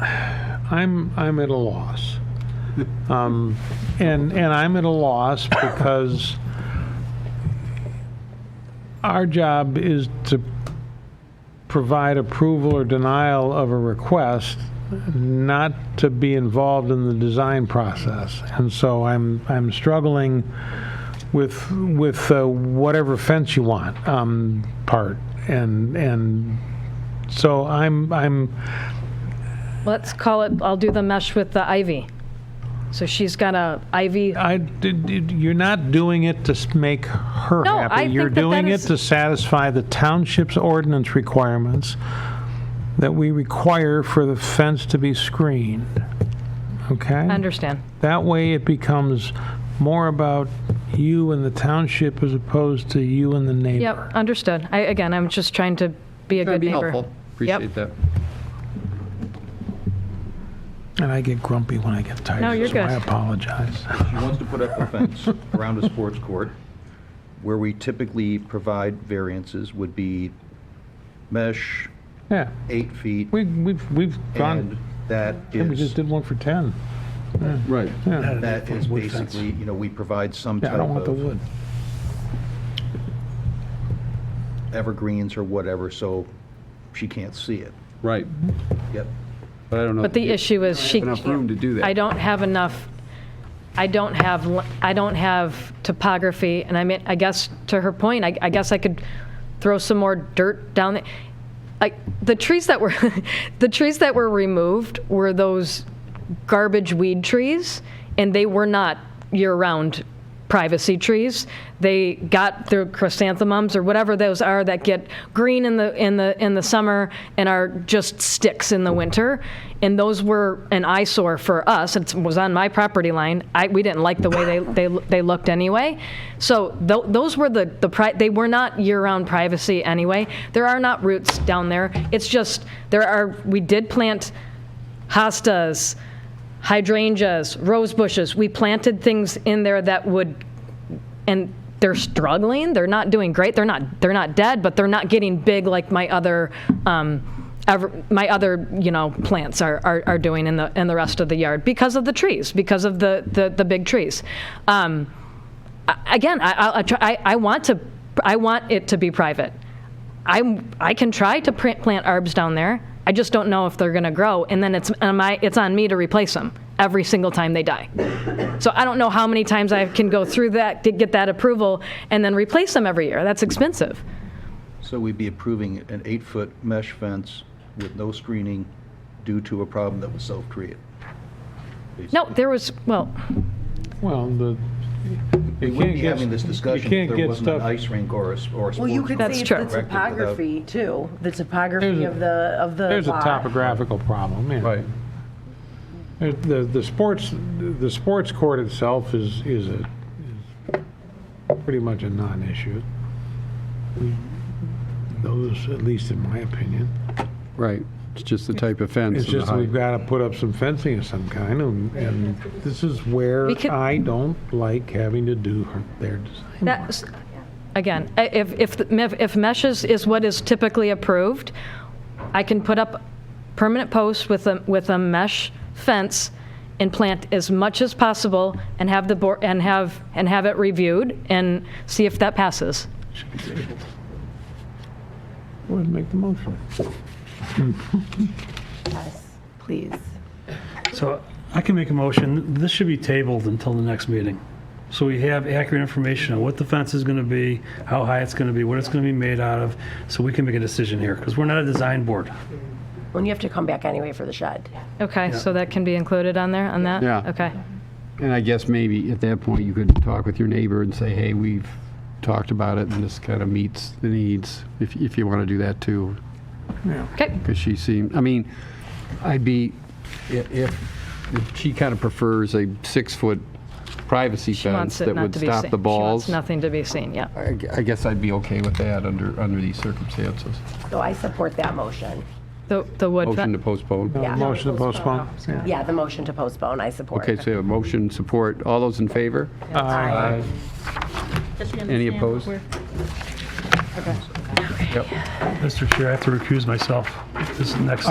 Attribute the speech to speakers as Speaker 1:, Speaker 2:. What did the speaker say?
Speaker 1: I'm, I'm at a loss. Um, And, and I'm at a loss because our job is to provide approval or denial of a request, not to be involved in the design process. And so I'm, I'm struggling with, with uh, whatever fence you want um, part. And, and so I'm, I'm,
Speaker 2: Let's call it, I'll do the mesh with the ivy. So she's got a ivy,
Speaker 3: Um,
Speaker 1: I, did- did- you're not doing it to s- make her
Speaker 2: No, I
Speaker 1: happy. You're
Speaker 2: think that that
Speaker 1: doing it
Speaker 2: is-
Speaker 1: to satisfy the township's ordinance requirements that we require for the fence to be screened.
Speaker 2: I
Speaker 1: Okay?
Speaker 2: understand.
Speaker 1: That way it becomes more about you and the township as opposed to you and the neighbor.
Speaker 2: Yep, understood. I, again, I'm just trying to be a
Speaker 3: That'd
Speaker 2: good
Speaker 3: uh, be
Speaker 2: neighbor.
Speaker 3: helpful. Appreciate that.
Speaker 1: And I get grumpy when I get tired.
Speaker 2: No, you're
Speaker 1: so I
Speaker 2: good.
Speaker 1: apologize.
Speaker 4: She wants to put up a fence around a sports court. Where we typically provide variances would be mesh,
Speaker 1: Yeah,
Speaker 4: eight feet,
Speaker 1: we, we've, we've
Speaker 4: and
Speaker 1: gone,
Speaker 4: that
Speaker 1: we just
Speaker 4: is,
Speaker 1: did one for 10.
Speaker 3: Right.
Speaker 1: Yeah,
Speaker 4: that is basically, you know, we provide some
Speaker 1: Yeah, I
Speaker 4: type
Speaker 1: don't want the
Speaker 4: of
Speaker 1: wood.
Speaker 4: evergreens or whatever, so she can't see it.
Speaker 3: Right,
Speaker 4: Yep.
Speaker 3: but I don't know.
Speaker 2: But the issue is she.
Speaker 3: Enough room to do that.
Speaker 2: I don't have enough, I don't have, l- I don't have topography, and I mean, I guess, to her point, I, I guess I could throw some more dirt down. the- Like, the trees that were, the trees that were removed were those garbage weed trees, and they were not year-round privacy trees. They got their chrysanthemums or whatever those are that get green in the in the in the summer and are just sticks in the winter. And those were an eyesore for us. It was on my property line. I, we didn't like the way they they, they looked anyway. So tho- those were the the pri- they were not year-round privacy anyway. There are not roots down there. It's just there are we did plant hostas, hydrangeas, rose bushes. We planted things in there that would, and they're struggling. They're not doing great. They're not. They're not dead, but they're not getting big like my other, um, ever, my other you know plants are, are, are doing in the in the rest of the yard because of the trees, because of the the, the big trees. Um, I- again, I, I, I, try, I I want to I want it to be private. I I can try to print, plant arbs down there. I just don't know if they're going to grow, and then it's on my it's on me to replace them every single time they die. So I don't know how many times I can go through that to get that approval and then replace them every year. That's expensive.
Speaker 4: So we'd be approving an eight-foot mesh fence with no screening due to a problem that was self-created.
Speaker 2: No, there was well,
Speaker 1: Well, the.
Speaker 4: We
Speaker 1: you
Speaker 4: wouldn't
Speaker 1: can't
Speaker 4: be
Speaker 1: get-
Speaker 4: having this discussion
Speaker 1: You can't
Speaker 4: if there
Speaker 1: get
Speaker 4: wasn't an
Speaker 1: stuff,
Speaker 4: ice rink or a, s- or a sports.
Speaker 5: Well, you could
Speaker 4: court.
Speaker 2: That's
Speaker 5: see
Speaker 2: true.
Speaker 5: the
Speaker 4: Corrected without-
Speaker 5: topography too, the
Speaker 1: There's
Speaker 5: topography
Speaker 1: a-
Speaker 5: of the, of the
Speaker 1: there's a
Speaker 5: lot.
Speaker 1: topographical problem, yeah.
Speaker 3: Right,
Speaker 1: There- The, the sports, the sports court itself is, is a, is pretty much a non-issue. We- Those, at least in my opinion.
Speaker 3: right. It's just the type of fence.
Speaker 1: It's
Speaker 3: and the
Speaker 1: just we've
Speaker 3: height.
Speaker 1: got to put up some fencing of some kind, and, and this is where
Speaker 2: We could-
Speaker 1: I don't like having to do her- their design.
Speaker 2: That's, again, i- if, if, the- if mesh is, is what is typically approved, I can put up permanent posts with a, with a mesh fence and plant as much as possible and have the board, and have, and have it reviewed and see if that passes.
Speaker 1: Go ahead and make the motion.
Speaker 5: Please.
Speaker 6: So I can make a motion, this should be tabled until the next meeting. So we have accurate information on what the fence is going to be, how high it's going to be, what it's going to be made out of, so we can make a decision here, because we're not a design board.
Speaker 5: When you have to come back anyway for the shed.
Speaker 2: Okay, so that can be included on there, on that?
Speaker 3: Yeah.
Speaker 2: Okay.
Speaker 3: And I guess maybe at that point, you could talk with your neighbor and say, hey, we've talked about it, and this kind of meets the needs, if, if you want to do that too.
Speaker 2: Okay,
Speaker 3: Because she seemed, I mean, I'd be, i- if, if she kind of prefers a six-foot privacy
Speaker 2: she
Speaker 3: fence
Speaker 2: wants it
Speaker 3: that
Speaker 2: not
Speaker 3: would
Speaker 2: to be seen.
Speaker 3: stop the
Speaker 2: She wants
Speaker 3: balls, I
Speaker 2: nothing to be seen, yeah.
Speaker 3: gu- I guess I'd be okay with that under, under these circumstances.
Speaker 5: So I support that motion.
Speaker 2: The, the wood
Speaker 3: Motion
Speaker 2: fence.
Speaker 3: to postpone.
Speaker 5: Yeah.
Speaker 1: Motion to postpone.
Speaker 5: Yeah, the motion to postpone, I support.
Speaker 3: Okay, so we have a motion, support, all those in favor? Aye. Any opposed?
Speaker 6: Mr. Chair, I have to recuse myself this next